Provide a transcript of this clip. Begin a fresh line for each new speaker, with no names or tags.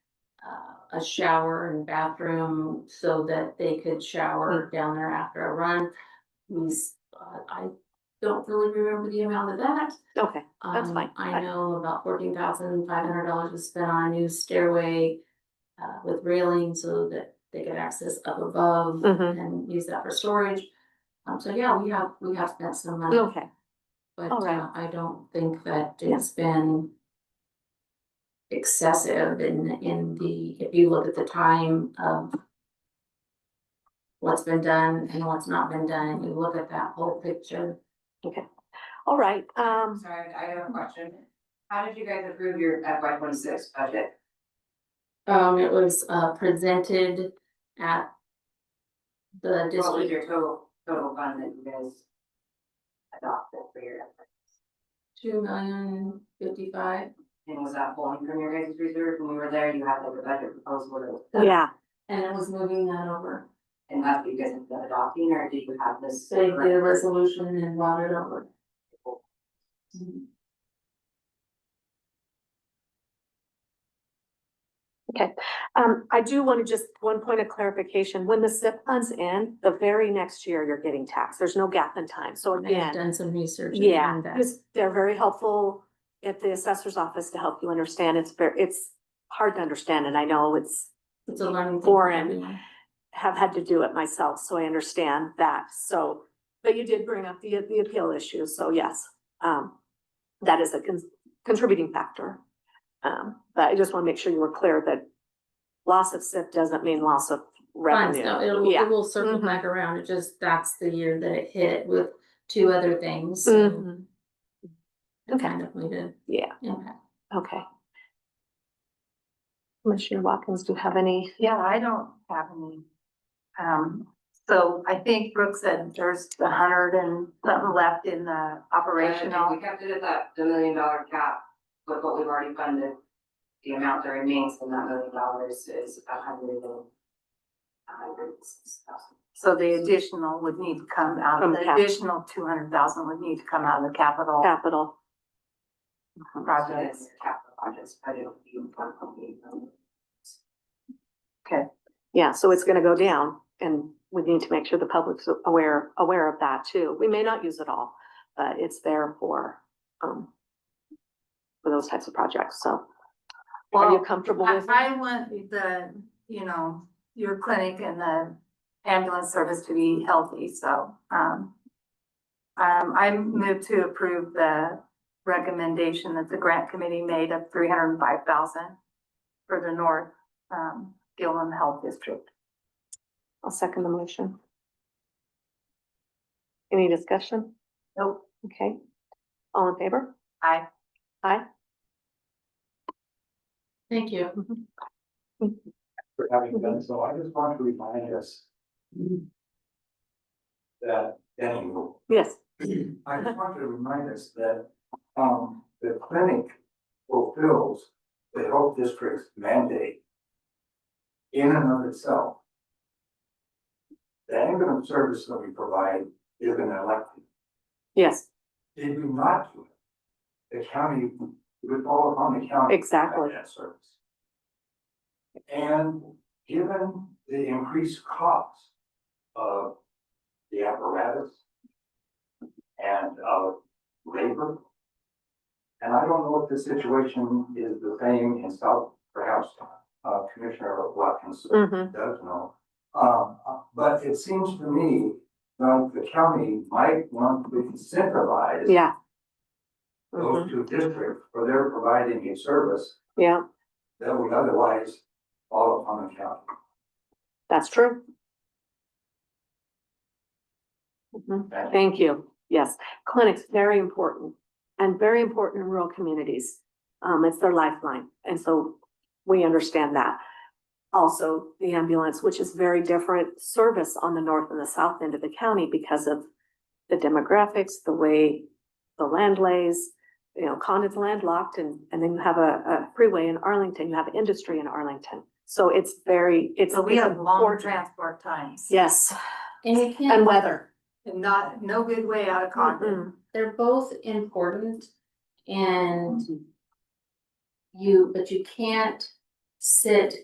a shower and bathroom so that they could shower
Hmm.
down there after a run. We, s- uh, I don't really remember the amount of that.
Okay, That's
Um,
fine.
I
I-
know about fourteen thousand five hundred dollars was spent on a new stairway uh, with railing so that they could access up above
Mhm.
and use that for storage. Um, so yeah, we have, we have spent some money.
okay,
But
All right.
uh, I don't think that
Yeah.
it's been. Excessive in in the, if you look at the time of. What's been done and what's not been done, and you look at that whole picture.
all right, um,
Sorry, I have a question. How did you guys approve your FY twenty-six budget?
Um, it was uh presented at. The
What was
district,
your total, total fund that you guys adopted for your,
two million fifty-five,
and was that pulling from your guys' reserve? When we were there, you had like a budget proposal,
yeah,
and it was moving that over.
and that's what you guys have been adopting, or did you have this?
So you did a resolution and brought it over. Mhm.
um, I do want to just, one point of clarification, when the SIP funds end, the very next year you're getting taxed, there's no gap in time, so
I've
again.
done some research.
Yeah,
on that.
because they're very helpful at the assessor's office to help you understand, it's very, it's hard to understand, and I know it's
It's a learning. thing for
Foreign.
everyone.
have had to do it myself, so I understand that, so. But you did bring up the, the appeal issue, so yes, um, that is a con- contributing factor. Um, but I just wanna make sure you were clear that loss of SIP doesn't mean loss of
Fine, so
revenue,
it'll,
yeah.
it will circle
Mhm.
back around, it just, that's the year that it hit with two other things. so
Mhm.
it Kind of made a
Yeah,
impact.
okay. Commissioner Watkins, do you have any?
Yeah, I don't have any. Um, so I think Brooke said there's a hundred and something left in the
Operational,
operational.
we kept it at that, the million dollar cap, with what we've already funded. The amount that remains from that million dollars is a hundred and. A hundred and six thousand.
So the additional would need to come out,
From
the
cap-
additional two hundred thousand would need to come out of the capital
Capital,
Uh-huh. projects.
Capital projects, but it'll be one point eight million.
yeah, so it's gonna go down, and we need to make sure the public's aware, aware of that too. We may not use it all, but it's there for, um, for those types of projects, so. Are you
Well,
comfortable
I,
with?
I want the, you know, your clinic and the ambulance service to be healthy, so, um. Um, I move to approve the recommendation that the grant committee made of three hundred and five thousand for the North, um, Gilman Health District.
I'll second the motion. Any discussion?
Nope,
Okay. All in favor?
I,
Thank you.
for having done so. I just want to remind us that, and
Yes.
I just want to remind us that, um, the clinic fulfills the health district's mandate in and of itself. The ambulance service that we provide is an elective.
Yes,
Did we not do it? The county, it would fall upon the county. to provide
Exactly.
That service. And given the increased cost of the apparatus and of labor, and I don't know if the situation is the same in South, perhaps uh, Commissioner Watkins
mm-hmm,
does know. Um, uh, but it seems to me like the county might want to incentivize
yeah. Mhm,
those two districts for their providing a service
Yeah,
that would otherwise fall upon the county.
that's true. Mhm,
Thank you.
Thank you. Yes, clinics, very important and very important in rural communities. Um, it's their lifeline. And so we understand that. Also, the ambulance, which is very different service on the north and the south end of the county because of the demographics, the way the land lays, you know, Condon's landlocked and, and then you have a, a freeway in Arlington, you have industry in Arlington. So it's very, it's.
so we
it's
have long
important.
transport times.
Yes,
And you
and
can't,
weather.
And not, no good way out of Condon.
Mm-mm.
they're both important
Mm-hmm.
and you, but you can't sit